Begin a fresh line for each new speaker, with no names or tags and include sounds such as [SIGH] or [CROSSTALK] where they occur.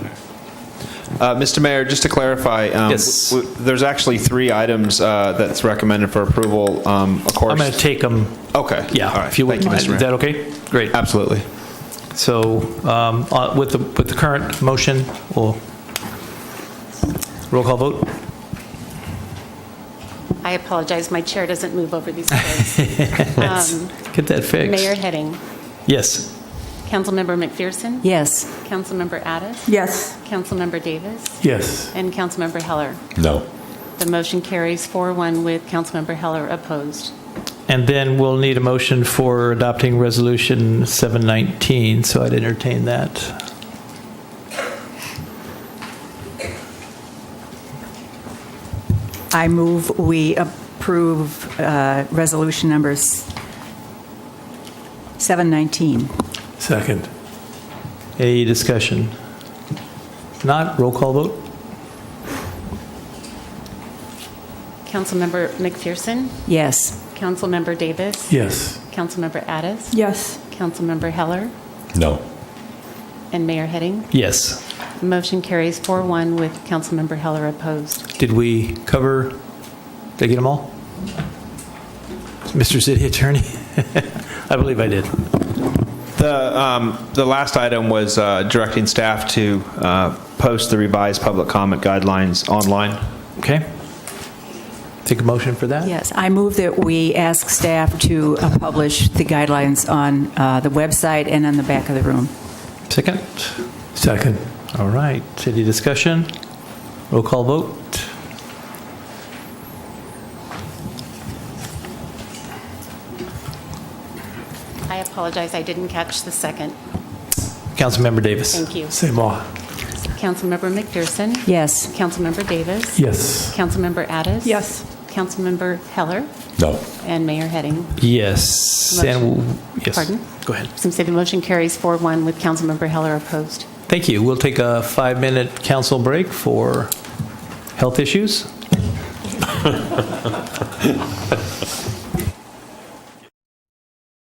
Uh, Mr. Mayor, just to clarify, um,
Yes.
w- w- there's actually three items uh, that's recommended for approval, um, of course.
I'm going to take them,
Okay. All
yeah,
right.
if you would.
Thank you, Mr.
Is
Mayor.
that okay? Great.
Absolutely.
So um, uh, with the, with the current motion, we'll, roll call vote?
I apologize, my chair doesn't move over these chairs. Um,
Get that fixed.
Mayor Heading,
Yes.
Councilmember McPherson?
Yes.
Councilmember Addis?
Yes.
Councilmember Davis?
Yes.
And Councilmember Heller.
No.
The motion carries 4-1 with Councilmember Heller opposed.
And then we'll need a motion for adopting Resolution 719, so I'd entertain that.
I move we approve uh, resolution numbers 719.
Second. Any discussion? Not, roll call vote?
Councilmember McPherson?
Yes.
Councilmember Davis?
Yes.
Councilmember Addis?
Yes.
Councilmember Heller?
No.
And Mayor Heading?
Yes.
The motion carries 4-1 with Councilmember Heller opposed.
Did we cover, did I get them all? Mr. City Attorney? [LAUGHS] I believe I did.
The, um, the last item was uh, directing staff to uh, post the revised public comment guidelines online.
Okay. Take a motion for that?
Yes. I move that we ask staff to uh, publish the guidelines on uh, the website and on the back of the room.
Second? Second. All right. Any discussion? Roll call vote?
I apologize, I didn't catch the second.
Councilmember Davis.
Thank you.
Same all.
Councilmember McPherson?
Yes.
Councilmember Davis?
Yes.
Councilmember Addis?
Yes.
Councilmember Heller
No.
and Mayor Heading.
Yes. And
Motion.
yes.
Pardon?
Go ahead.
Since the motion carries 4-1 with Councilmember Heller opposed.
Thank you. We'll take a five-minute council break for health issues.